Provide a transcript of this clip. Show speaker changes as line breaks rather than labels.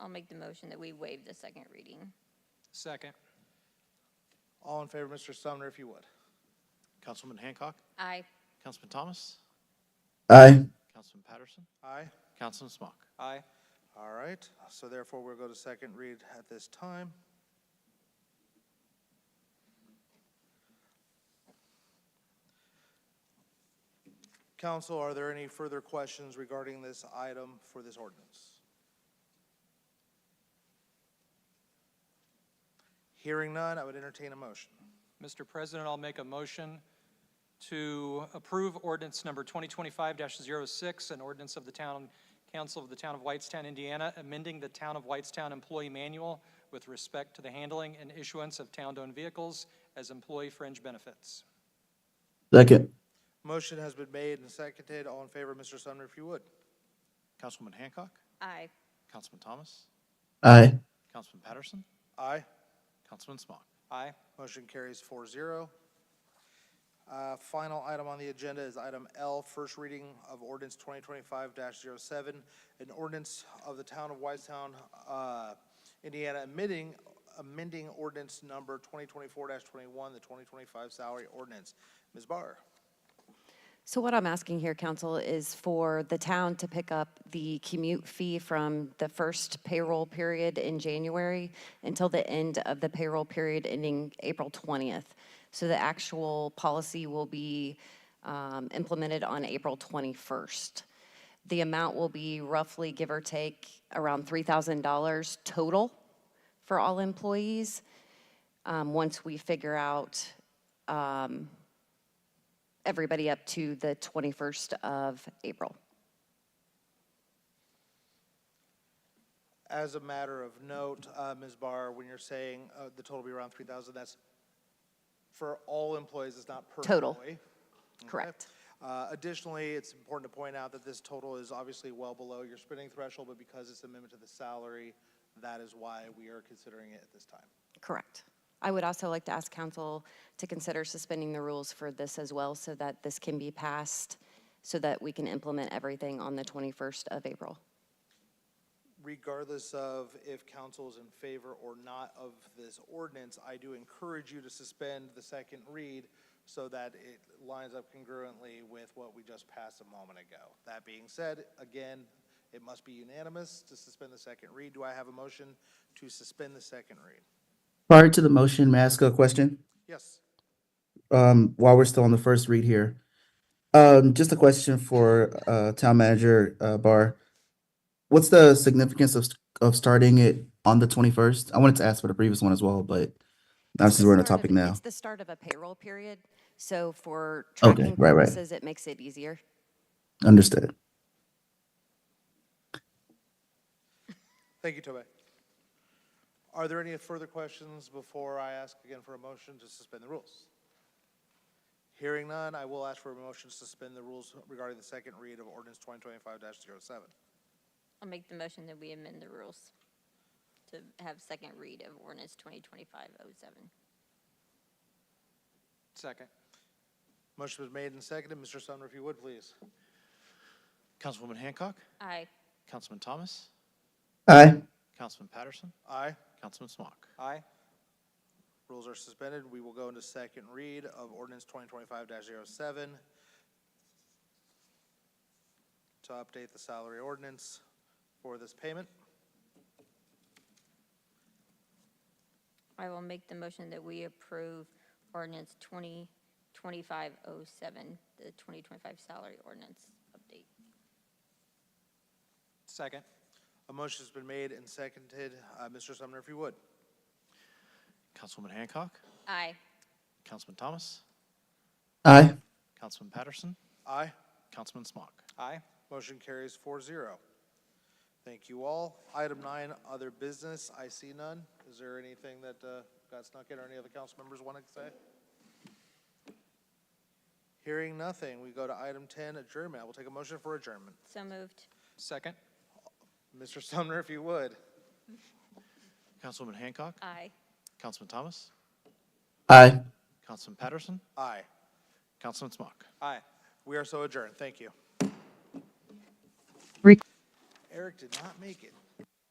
I'll make the motion that we waive the second reading.
Second.
All in favor, of Mr. Sumner, if you would.
Councilman Hancock,
Aye.
Councilman Thomas,
aye,
Councilman Patterson,
Aye.
Councilman Smock.
Aye.
All right, so therefore we'll go to second read at this time. Council, are there any further questions regarding this item for this ordinance? Hearing none, I would entertain a motion.
Mr. President, I'll make a motion to approve ordinance number 2025-06, an ordinance of the Town Council of the Town of Whitestown, Indiana, amending the Town of Whitestown Employee Manual with respect to the handling and issuance of town-owned vehicles as employee fringe benefits.
second,
Motion has been made and seconded. All in favor, Mr. Sumner, if you would.
Councilwoman Hancock,
Aye.
Councilman Thomas,
aye,
Councilman Patterson,
Aye.
Councilman Smock.
Aye.
Motion carries four zero. Uh, final item on the agenda is item L, first reading of ordinance twenty twenty-five 7 an ordinance of the town of Whitestown, uh, Indiana, amending, amending ordinance number twenty twenty-four twenty-one, the twenty twenty-five salary ordinance. Ms. Barr?
So what I'm asking here, council, is for the town to pick up the commute fee from the first payroll period in January until the end of the payroll period ending April 20th. So the actual policy will be um, implemented on April 21st. The amount will be roughly, give or take, around $3,000 total for all employees, um, once we figure out everybody up to the 21st of April.
As a matter of note, uh, Ms. Barr, when you're saying, uh, the total be around three thousand, that's for all employees, it's not per
Total.
employee?
Correct.
Uh, Additionally, it's important to point out that this total is obviously well below your spending threshold, but because it's amendment to the salary, that is why we are considering it at this time.
Correct. I would also like to ask council to consider suspending the rules for this as well so that this can be passed, so that we can implement everything on the 21st of April.
Regardless of if council is in favor or not of this ordinance, I do encourage you to suspend the second read so that it lines up congruently with what we just passed a moment ago. That being said, again, it must be unanimous to suspend the second read. Do I have a motion to suspend the second read?
Prior to the motion, may I ask a question?
Yes.
Um, while we're still on the first read here. Um, just a question for, uh, Town Manager, uh, Barr. What's the significance of, of starting it on the twenty-first? I wanted to ask for the previous one as well, but obviously we're on the
It's the start of-
topic now.
It's the start of a payroll period, so for
Okay,
tracking
right, right.
purposes, it makes it easier.
Understood.
Thank you, Tobey. Are there any further questions before I ask again for a motion to suspend the rules? Hearing none, I will ask for a motion to suspend the rules regarding the second read of ordinance 2025-07.
I'll make the motion that we amend the rules to have second read of ordinance 2025-07.
Second.
Motion was made and seconded. Mr. Sumner, if you would, please.
Councilwoman Hancock,
Aye.
Councilman Thomas,
Aye,
Councilman Patterson,
Aye.
Councilman Smock.
Aye.
Rules are suspended. We will go into second read of ordinance 2025-07 to update the salary ordinance for this payment.
I will make the motion that we approve ordinance 2025-07, the 2025 salary ordinance update.
Second.
A motion has been made and seconded. Uh, Mr. Sumner, if you would.
Councilwoman Hancock,
Aye.
Councilman Thomas,
aye,
Councilman Patterson,
Aye.
Councilman Smock.
Aye.
Motion carries four zero. Thank you all. Item nine, other business. I see none. Is there anything that uh, got snuck in or any other council members want to say? Hearing nothing, we go to item 10, adjournment. I will take a motion for adjournment.
So moved.
Second.
Mr. Sumner, if you would.
Councilwoman Hancock,
Aye.
Councilman Thomas,
aye.
Councilman Patterson,
Aye.
Councilman Smock.
Aye.
We are so adjourned. Thank you.
Rec-
Eric did not make it.